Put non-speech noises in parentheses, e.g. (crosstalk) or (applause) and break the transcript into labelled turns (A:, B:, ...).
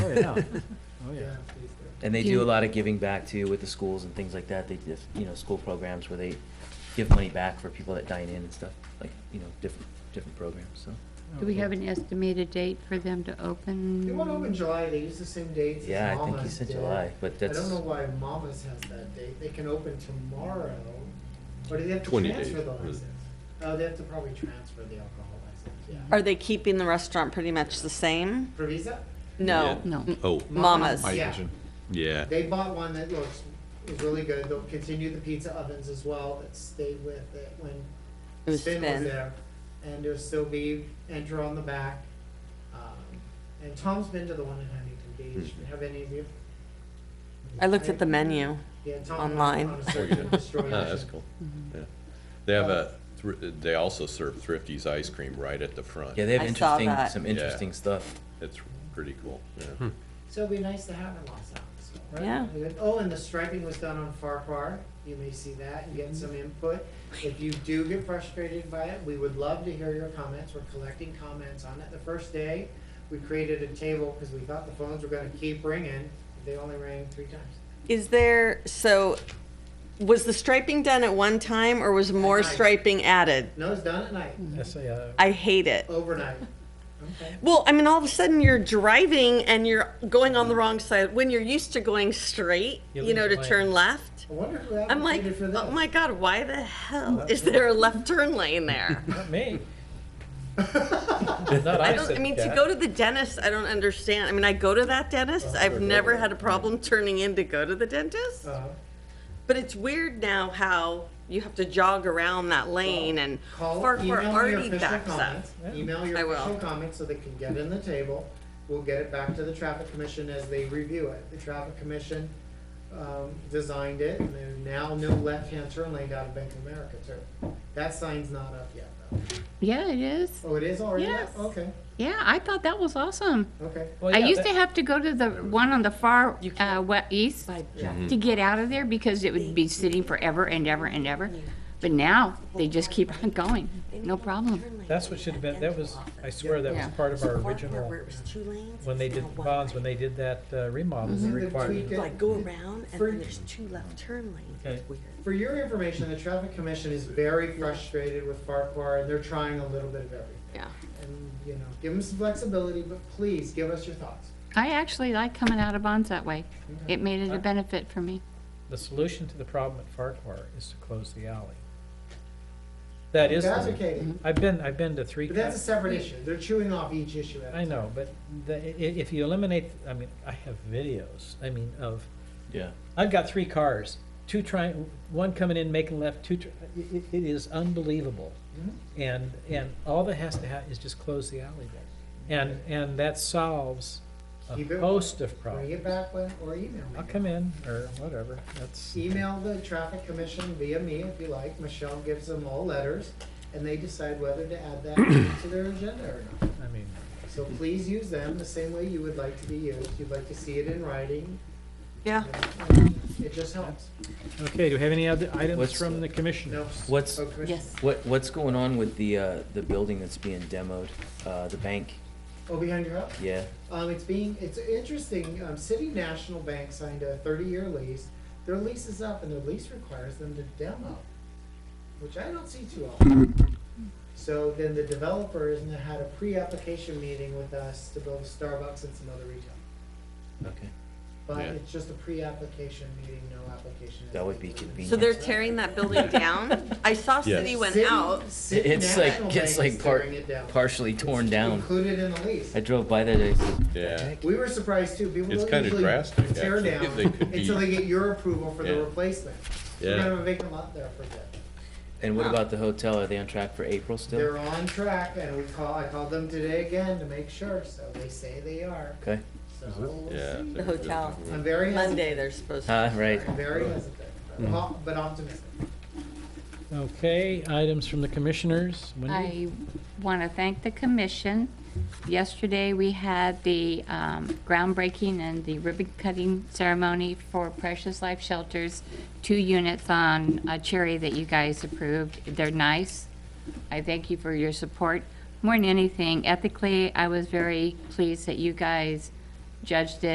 A: yeah, oh, yeah.
B: And they do a lot of giving back too with the schools and things like that. They do, you know, school programs where they give money back for people that dine in and stuff, like, you know, different, different programs, so.
C: Do we have an estimated date for them to open?
D: They won't open July, they use the same dates as
B: Yeah, I think you
D: Mama's
B: said
D: did.
B: July, but
D: I
B: that's,
D: don't know why Mama's has that date, they can open tomorrow, or do they have to
E: 20
D: transfer
E: days,
D: the
E: really.
D: license? Oh, they have to probably transfer the alcohol license, yeah.
F: Are they keeping the restaurant pretty much the same?
D: For Visa?
F: No.
E: Yeah.
C: No.
E: Oh,
F: Mama's.
E: My
D: Yeah,
E: vision. yeah.
D: they bought one that looks, is really good, they'll continue the pizza ovens as well, that stayed with it
F: It
D: when
F: was
D: Spin was
F: Spin.
D: there. And there'll still be enter on the back, um, and Tom's been to the one in Huntington Beach,
E: Mm-hmm.
D: have any of you?
F: I looked at the menu.
D: Yeah, Tom went
F: Online.
D: on a
E: (laughs) Oh,
D: search
E: yeah.
D: and destroy
E: (laughs) Ah, That's cool. Yeah. They have a, thr- they also serve Thrifty's ice cream right at the front.
B: yeah, they have
F: I saw
B: interesting,
F: that.
B: some
E: Yeah.
B: interesting stuff.
E: It's pretty cool, yeah.
D: So it'd be nice to have in Los Alamos, right?
F: Yeah.
D: Oh, and the striping was done on Farquhar. You may see that and get some input. If you do get frustrated by it, we would love to hear your comments. We're collecting comments on it. The first day, we created a table because we thought the phones were gonna keep ringing. They only rang three times.
F: Is there, so, was the striping done at one time or was more
D: At night.
F: striping added?
D: No, it's done at night,
F: Mm-hmm.
A: That's a,
F: I hate it.
D: overnight. Okay.
F: Well, I mean, all of a sudden you're driving and you're going on the wrong side when you're used to going straight,
A: You
F: you know,
A: lose
F: to
A: your
F: turn left.
D: I wonder who
F: I'm like,
D: advocated for this.
F: oh my God, why the hell is there a left turn
D: (laughs)
F: lane there?
A: uh, not me. Not
F: I
A: I
F: don't, I
A: said
F: mean, to
A: that.
F: go to the dentist, I don't understand. I mean, I go to that dentist. I've never had a problem turning in to go to the dentist.
D: Uh,
F: But it's weird now how you have to jog around that lane and
D: Call,
F: Farquhar
D: email your
F: already
D: official
F: backs up.
D: comments. Email
F: I
D: your
F: will.
D: official comments so they can get in the table. We'll get it back to the traffic commission as they review it. The traffic commission, um, designed it and there's now no left-hand turn lane out of Bank of America too. That sign's not up yet though.
C: Yeah, it is.
D: Oh, it is already up?
C: Yes.
D: Okay,
C: Yeah, I thought that was awesome.
D: okay.
A: Well,
C: I
A: yeah,
C: used
A: that-
C: to have to go to the one on the far uh, we- east
D: Mhm.
C: to get out of there because it would be sitting forever and ever and ever. But now they just keep (laughs) on going, no problem.
A: That's what should have been, that was, I swear, that was
C: Yeah.
A: part of our original, when they did the ponds, when they did that uh, remodel, they
D: Mhm.
A: required.
D: Tweak
A: it.
D: it.
G: Like go around and
D: For-
G: then there's two left turn lanes.
A: Okay.
G: It's weird.
D: For your information, the traffic commission is very frustrated with Farquhar and they're trying a little bit of everything.
F: Yeah.
D: And, you know, give them some flexibility, but please give us your thoughts.
C: I actually like coming out of Bonds that way. It made it a benefit for me.
A: The solution to the problem at Farquhar is to close the alley. That is, the-
D: Advocating.
F: Mm-hmm.
A: I've been, I've been to three.
D: But that's a separate issue. They're chewing off each issue. at a
A: I know, but the, i- i- if you eliminate, I mean, I have videos, I mean, of,
B: Yeah.
A: I've got three cars, two trying, one coming in, making left, two, tr- i- i- it is unbelievable.
D: Mm-hmm.
A: And, and all that has to have is just close the alleyway. And, and that solves a
D: Keep it-
A: host of
D: time. Bring
A: problems.
D: it back when, or email
A: I'll
D: me.
A: come in, or whatever, that's,
D: Email the traffic commission via me if you like. Michelle gives them all letters and they decide whether to add that (coughs) to their agenda or not.
A: I mean,
D: So please use them the same way you would like to be used. You'd like to see it in writing.
F: Yeah.
D: and um, It just helps.
A: okay, do we have any other items
B: What's
A: from
B: the-
A: the commission?
D: No.
B: What's-
D: Oh, Commissioner.
C: Yes.
B: What, what's going on with the, uh, the building that's being demoed, uh, the bank?
D: Oh, behind your house?
B: Yeah,
D: Um, it's being, it's interesting, um, City National Bank signed a thirty-year lease. Their lease is up and their lease requires them to demo, which I don't see too often. So then the developers had a pre-application meeting with us to build a Starbucks and some other retail.
B: okay.
D: But
E: Yeah.
D: it's just a pre-application meeting, no application. has
B: That would be
D: been done.
B: convenient.
F: So they're tearing that building down? I saw
E: Yes.
F: City went
D: City-
F: out.
D: City
B: It's like,
D: National
B: it's
D: Bank
B: like
D: is
B: part,
D: tearing it down.
B: partially torn down.
D: Included in the lease.
B: I drove by that, I said,
E: Yeah,
D: We were surprised too. People
E: It's
D: don't
E: kinda
D: usually
E: drastic,
D: tear
E: actually.
D: down
E: They could be-
D: until they get your approval for the
E: Yeah.
D: replacement. We're
E: Yeah.
D: gonna have a vacant lot there for a bit.
B: and what about the hotel? Are they on track for April still?
D: They're on track, and we call. I called them today again to make sure. So they say they are.
B: Okay,
D: So we'll
E: yeah.
D: see.
F: The hotel.
D: I'm very
F: Monday they're supposed to.
B: uh, right.
D: hesitant. I'm very hesitant, but op- but optimistic.
A: Okay, items from the commissioners, Wendy?
C: I want to thank the commission. Yesterday, we had the um, groundbreaking and the ribbon cutting ceremony for Precious Life Shelters, two units on uh, Cherry that you guys approved. They're nice. I thank you for your support. More than anything, ethically, I was very pleased that you guys judged it